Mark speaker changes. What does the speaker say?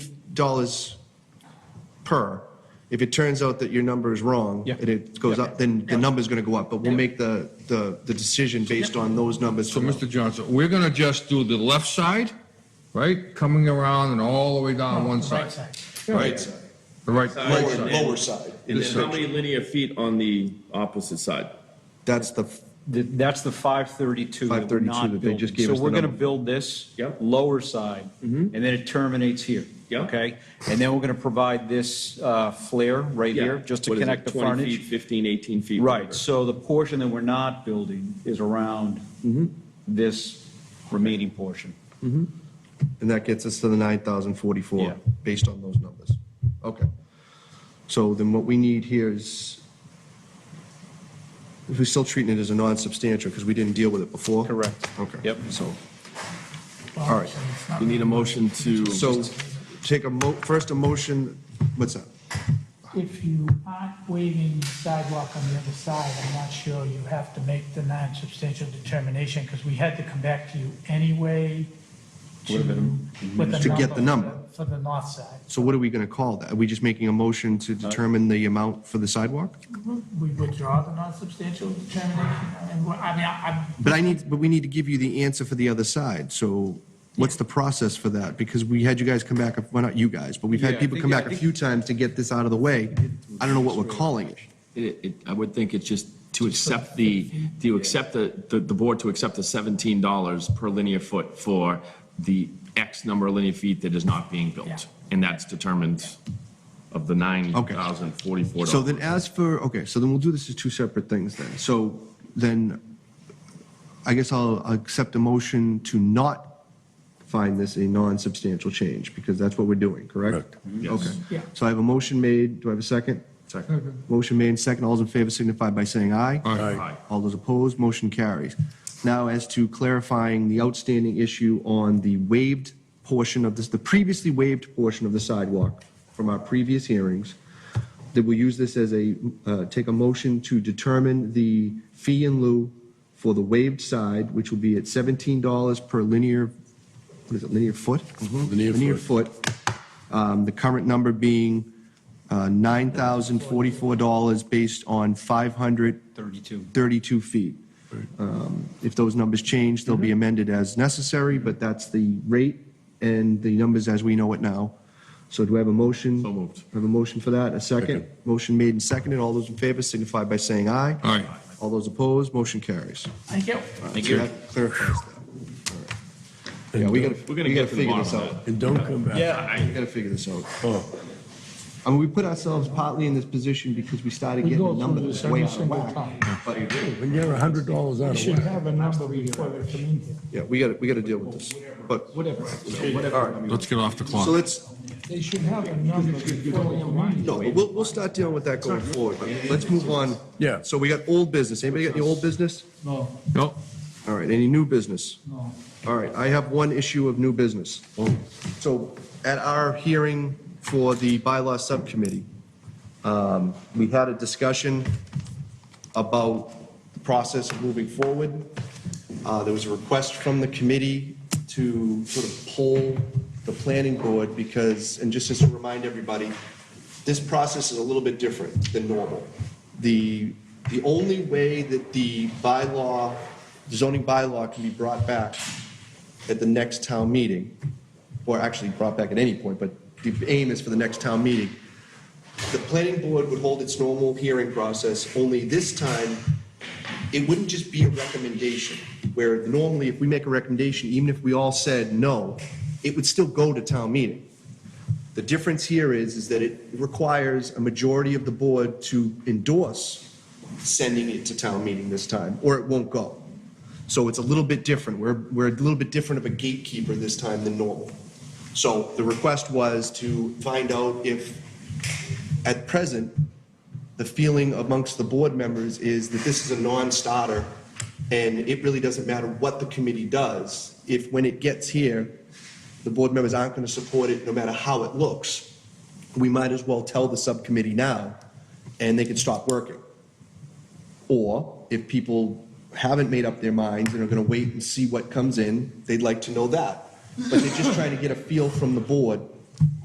Speaker 1: dollars per. If it turns out that your number is wrong,
Speaker 2: Yeah.
Speaker 1: and it goes
Speaker 2: Yeah.
Speaker 1: up, then the number's gonna go up, but we'll make the, the, the decision based on those numbers.
Speaker 3: So, Mr. Johnson, we're gonna just do the left side, right, coming around and all the way down one side. Oh, Right side. The right, right
Speaker 1: Lower,
Speaker 3: side.
Speaker 1: lower side.
Speaker 4: And
Speaker 3: This
Speaker 4: then how many linear feet on the opposite side?
Speaker 1: That's the,
Speaker 2: Th- That's the 532. that we're
Speaker 1: 532
Speaker 2: not
Speaker 1: that they just
Speaker 2: building.
Speaker 1: gave us
Speaker 2: So
Speaker 1: the
Speaker 2: we're going to
Speaker 1: number.
Speaker 2: build this
Speaker 4: Yep.
Speaker 2: lower side, and then it terminates here.
Speaker 4: Yep.
Speaker 2: Okay? And then we're going to provide this uh, flare right
Speaker 4: Yeah.
Speaker 2: here, just to
Speaker 4: What is it,
Speaker 2: connect the
Speaker 4: 20 feet,
Speaker 2: frontage.
Speaker 4: 15, 18 feet.
Speaker 2: Right,
Speaker 4: whatever.
Speaker 2: so the portion that we're not building is around this remaining portion.
Speaker 1: and that gets us to the nine thousand forty-four,
Speaker 2: Yeah.
Speaker 1: based on those numbers. Okay. So then what we need here is, we're still treating it as a non-substantial, because we didn't deal with it before?
Speaker 2: Correct.
Speaker 1: Okay.
Speaker 2: Yep.
Speaker 1: So, all right.
Speaker 4: We need a motion to.
Speaker 1: So take a mo, first a motion, what's that?
Speaker 5: If you aren't waiving sidewalk on the other side, I'm not sure you have to make the non-substantial determination, because we had to come back to you anyway to, with the number.
Speaker 1: To get the number.
Speaker 5: For the north side.
Speaker 1: So what are we going to call that? Are we just making a motion
Speaker 2: Uh,
Speaker 1: to determine the amount for the sidewalk?
Speaker 5: We withdraw the non-substantial determination, and, we're- I mean, I,
Speaker 1: But I need, but we need to give you the answer for the other side, so what's the process for that? Because we had you guys come back, well, not you guys, but we've
Speaker 2: Yeah,
Speaker 1: had
Speaker 2: I
Speaker 1: people
Speaker 2: think-
Speaker 1: come
Speaker 2: yeah, I
Speaker 1: back a
Speaker 2: think-
Speaker 1: few times to get this out of the way. I don't know what we're calling it.
Speaker 4: It, it, I would think it's just to accept the, to accept the, the, the board to accept the seventeen dollars per linear foot for the X number of linear feet that is not being
Speaker 5: Yeah.
Speaker 4: built. And that's determined of the nine thousand forty-four
Speaker 1: So
Speaker 4: dollars.
Speaker 1: then as for, okay, so then we'll do this as two separate things then. So then, I guess I'll accept a motion to not find this a non-substantial change, because that's what we're doing, correct? Okay.
Speaker 5: Yeah.
Speaker 1: So I have a motion made, do I have a second? Second. Motion made, second, all those in favor signify by saying aye.
Speaker 4: Aye.
Speaker 1: All those opposed, motion carries. Now, as to clarifying the outstanding issue on the waived portion of this, the previously waived portion of the sidewalk from our previous hearings, that we'll use this as a, uh, take a motion to determine the fee in lieu for the waived side, which will be at $17 per linear, what is it, linear foot? Mm-hmm. Linear foot. Linear foot. Um, The current number being uh, $9,044 based on 500
Speaker 2: 32.
Speaker 1: 32 feet. Um, If those numbers change, they'll
Speaker 4: Mm-hmm.
Speaker 1: be amended as necessary, but that's the rate and the numbers as we know it now. So do I have a motion?
Speaker 4: So moved.
Speaker 1: I Have a motion for that, a second? Motion made and seconded, all those in favor signify by saying aye.
Speaker 3: Aye.
Speaker 1: All those opposed, motion carries.
Speaker 5: I get,
Speaker 4: Thank
Speaker 1: So
Speaker 4: you.
Speaker 1: that clarifies that.
Speaker 6: And
Speaker 1: Yeah, we
Speaker 6: don't-
Speaker 1: gotta, we
Speaker 4: We're gonna
Speaker 1: gotta
Speaker 4: get to the
Speaker 1: figure this
Speaker 4: bottom
Speaker 1: out.
Speaker 4: of
Speaker 6: And don't come back.
Speaker 4: Yeah.
Speaker 1: We
Speaker 4: I-
Speaker 1: gotta figure this out.
Speaker 6: Oh,
Speaker 1: I mean, we put ourselves partly in this position because we started getting a number that's way out of whack. But,
Speaker 6: When you're a hundred dollars out of whack,
Speaker 5: have a number before we come in here.
Speaker 1: yeah, we gotta, we gotta deal with this, but. Whatever.
Speaker 3: Let's get off the clock.
Speaker 1: So let's,
Speaker 5: They should have a number before we come in
Speaker 1: No, but we'll, we'll start dealing with that going forward, but let's move on.
Speaker 6: Yeah.
Speaker 1: So we got old business. Anybody got any old business?
Speaker 5: No,
Speaker 3: Nope.
Speaker 1: All right, any new business?
Speaker 5: no.
Speaker 1: All right, I have one issue of new business. So at our hearing for the bylaw subcommittee, um, we had a discussion about the process of moving forward. Uh, There was a request from the committee to sort of poll the planning board because, and just as to remind everybody, this process is a little bit different than normal. The, the only way that the bylaw, zoning bylaw can be brought back at the next town meeting, or actually brought back at any point, but the aim is for the next town meeting, the planning board would hold its normal hearing process, only this time, it wouldn't just be a recommendation, where normally if we make a recommendation, even if we all said no, it would still go to town meeting. The difference here is, is that it requires a majority of the board to endorse sending it to town meeting this time, or it won't go. So it's a little bit different. We're, we're a little bit different of a gatekeeper this time than normal. So the request was to find out if, at present, the feeling amongst the board members is that this is a non-starter, and it really doesn't matter what the committee does, if when it gets here, the board members aren't going to support it, no matter how it looks, we might as well tell the subcommittee now, and they can stop working. Or if people haven't made up their minds and are going to wait and see what comes in, they'd like to know that. But they're just trying to get a feel from the board